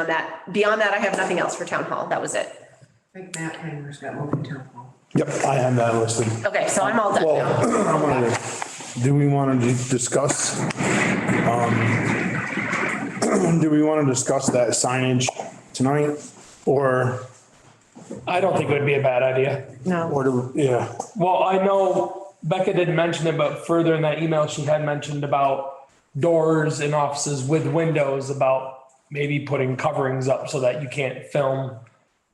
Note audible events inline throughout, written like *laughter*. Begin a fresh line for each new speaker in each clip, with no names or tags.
On that, beyond that, I have nothing else for town hall. That was it.
I think Matt Hanger's got open temple.
Yep, I have that listed.
Okay, so I'm all done
Well, *clears throat*
now.
I wanted to, do we want to discuss? um, *clears throat* Do we want to discuss that signage tonight? Or,
I don't think it would be a bad idea.
or, do- yeah,
Well, I know Becca didn't mention it, but further in that email, she had mentioned about doors in offices with windows about maybe putting coverings up so that you can't film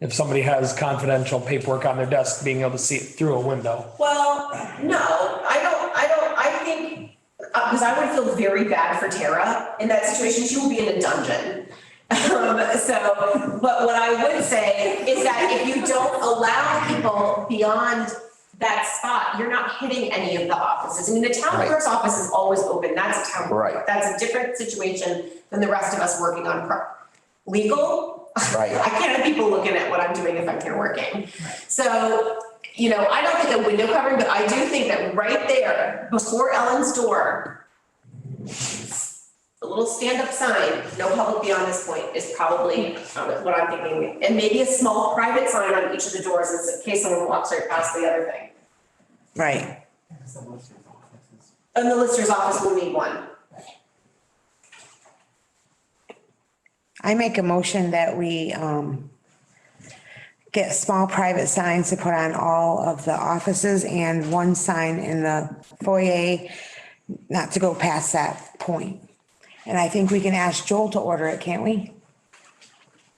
if somebody has confidential paperwork on their desk, being able to see it through a window.
Well, no, I don't, I don't, I think, uh, because I would feel very bad for Tara in that situation. She will be in a dungeon. Um, so, but what I would say is that if you don't allow people beyond that spot, you're not hitting any of the offices. I mean, the town
Right.
clerk's office is always open. That's a town clerk.
Right.
That's a different situation than the rest of us working on pro- legal.
Right.
*laughs* I can't have people looking at what I'm doing if I'm here working. So, you know, I don't think a window covering, but I do think that right there, before Ellen's door, the little stand-up sign, no public beyond this point, is probably um, what I'm thinking. And maybe a small private sign on each of the doors in case someone walks right past the other thing.
Right.
And the lister's office will need one.
I make a motion that we um get small private signs to put on all of the offices and one sign in the foyer, not to go past that point. And I think we can ask Joel to order it, can't we?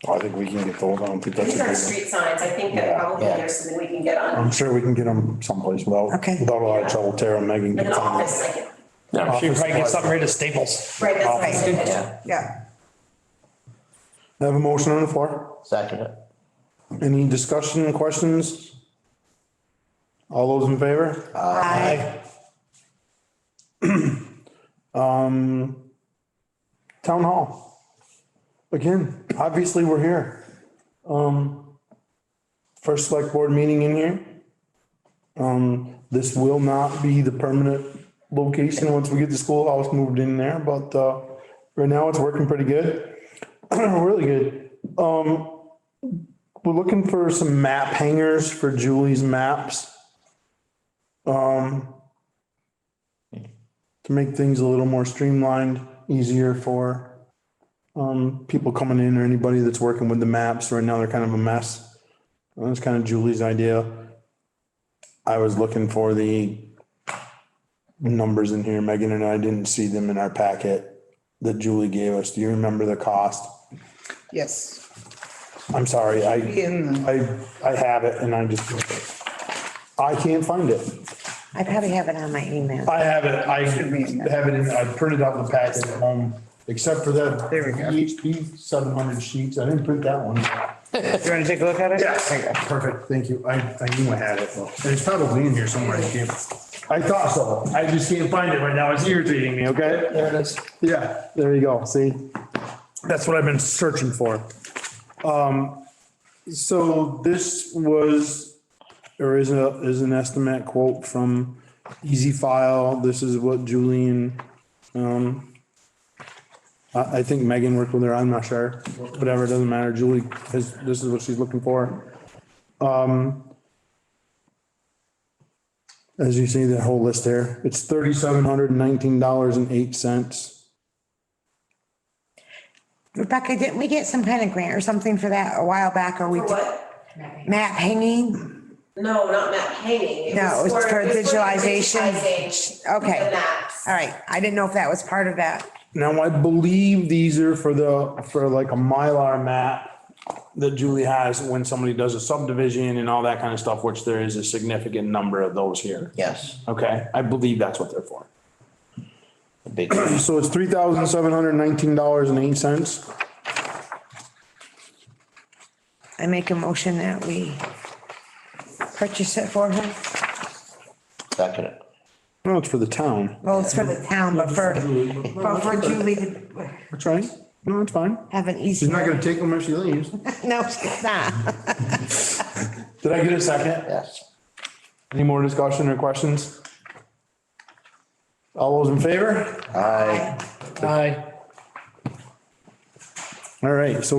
I think we can get those, I don't think that's a
These aren't
big
street signs. I think that
Yeah,
probably
yeah.
there's something we can get on.
I'm sure we can get them someplace without,
Okay.
without a lot of trouble. Tara and Megan
In
can
an
find
office,
it.
like,
Yeah, she probably get something ready to Staples.
right, that's
Right.
right.
Yeah,
Yeah.
Have a motion on the floor?
second it.
Any discussion, questions? All those in favor?
Aye.
Um, town hall. Again, obviously, we're here. Um, first select board meeting in here. Um, this will not be the permanent location once we get the schoolhouse moved in there, but, uh, right now it's working pretty good. *clears throat* Really good. Um, we're looking for some map hangers for Julie's maps. Um, to make things a little more streamlined, easier for um, people coming in or anybody that's working with the maps. Right now, they're kind of a mess. And That's kind of Julie's idea. I was looking for the numbers in here. Megan and I didn't see them in our packet that Julie gave us. Do you remember the cost?
Yes,
I'm sorry, I,
in the-
I, I have it and I just, I can't find it.
I probably have it on my email.
I have it, I
be in there.
have it, in- I printed out the packet at home, except for that.
There we go.
PHP seven hundred sheets, I didn't print that one.
you want to take a look at it?
Perfect, thank you, I, I knew I had it, and it's probably in here somewhere, I can't, I thought so, I just can't find it right now, it's irritating me, okay? There it is. Yeah, there you go, see? That's what I've been searching for. Um, so this was there is a, is an estimate quote from Easy File. This is what Julian, um, I, I think Megan worked with her, I'm not sure. Whatever, it doesn't matter. Julie, has this is what she's looking for. Um, as you see, that whole list there, it's thirty-seven hundred and nineteen dollars and eight cents.
Rebecca, didn't we get some kind of grant or something for that a while back or we?
For what?
Map hanging?
No, not map hanging.
No, it's for digitalization.
digitization of
Okay.
The maps.
All right. I didn't know if that was part of that.
Now, I believe these are for the, for like a Mylar map that Julie has when somebody does a subdivision and all that kind of stuff, which there is a significant number of those here.
Yes,
Okay, I believe that's what they're for.
the big,
So it's three thousand seven hundred nineteen dollars and eight cents.
I make a motion that we purchase it for her.
second it.
No, it's for the town.
Well, it's for the town, but for, but for Julie to
That's right. No, it's fine.
have an
She's not
easier.
gonna take them if she leaves.
No, she's not.
Did I get a second?
Yes,
Any more discussion or questions? All those in favor?
aye.
Aye.
All right, so